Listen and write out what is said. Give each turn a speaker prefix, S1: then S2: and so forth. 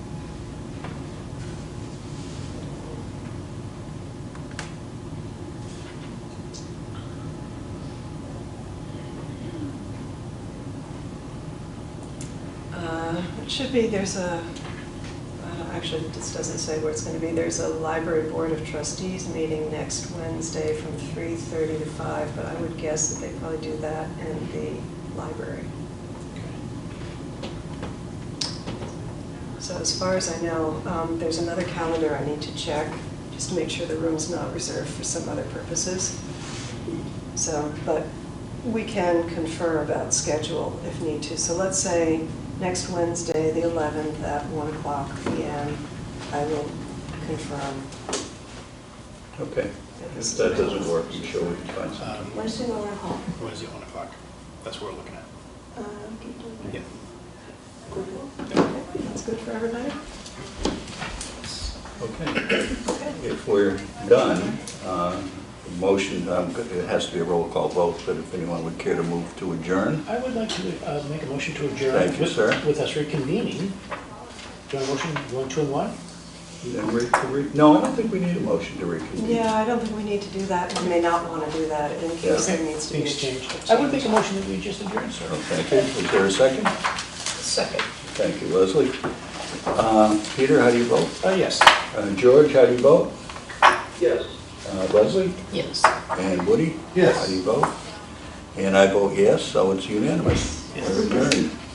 S1: Uh, Should be, there's a, I don't- actually, this doesn't say where it's going to be. There's a library board of trustees meeting next Wednesday from 3:30 to 5, but I would guess that they probably do that in the library. So as far as I know, um, there's another calendar I need to check, just to make sure the room's not reserved for some other purposes. So, but we can confer about schedule if need to. So let's say next Wednesday, the 11th, at 1 o'clock PM, I will confirm.
S2: Okay. If that doesn't work, I'm sure we can find something.
S3: Um,
S4: Wednesday, one o'clock.
S3: Wednesday, 1 o'clock. That's what we're looking at.
S4: Uh, can you do
S3: Yeah.
S4: it? Google.
S1: Okay, That's good for everybody?
S2: Okay.
S1: Okay.
S2: If we're done, uh, the motion, um, it has to be a roll call vote, but if anyone would care to move to adjourn,
S3: I would like to uh, make a motion to adjourn.
S2: Thank you,
S3: with-
S2: sir.
S3: With us reconvening. Do you want a motion, one, two, and one?
S2: then re- to re- no, I don't think we need a motion to reconvene.
S1: Yeah, I don't think we need to do that. We may not want to do that in case there needs to be. a
S3: Things change. I would make a motion that we just adjourn, sir.
S2: So, Thank you. Is there a second?
S1: Second.
S2: Thank you, Leslie. Uh, Peter, how do you vote?
S3: Uh, yes.
S2: Uh, George, how do you vote? Yes. Leslie?
S5: Yes.
S2: And Woody?
S3: Yes.
S2: How do you vote? And I vote yes, so it's unanimous.
S3: Yes.
S2: We're adjourned.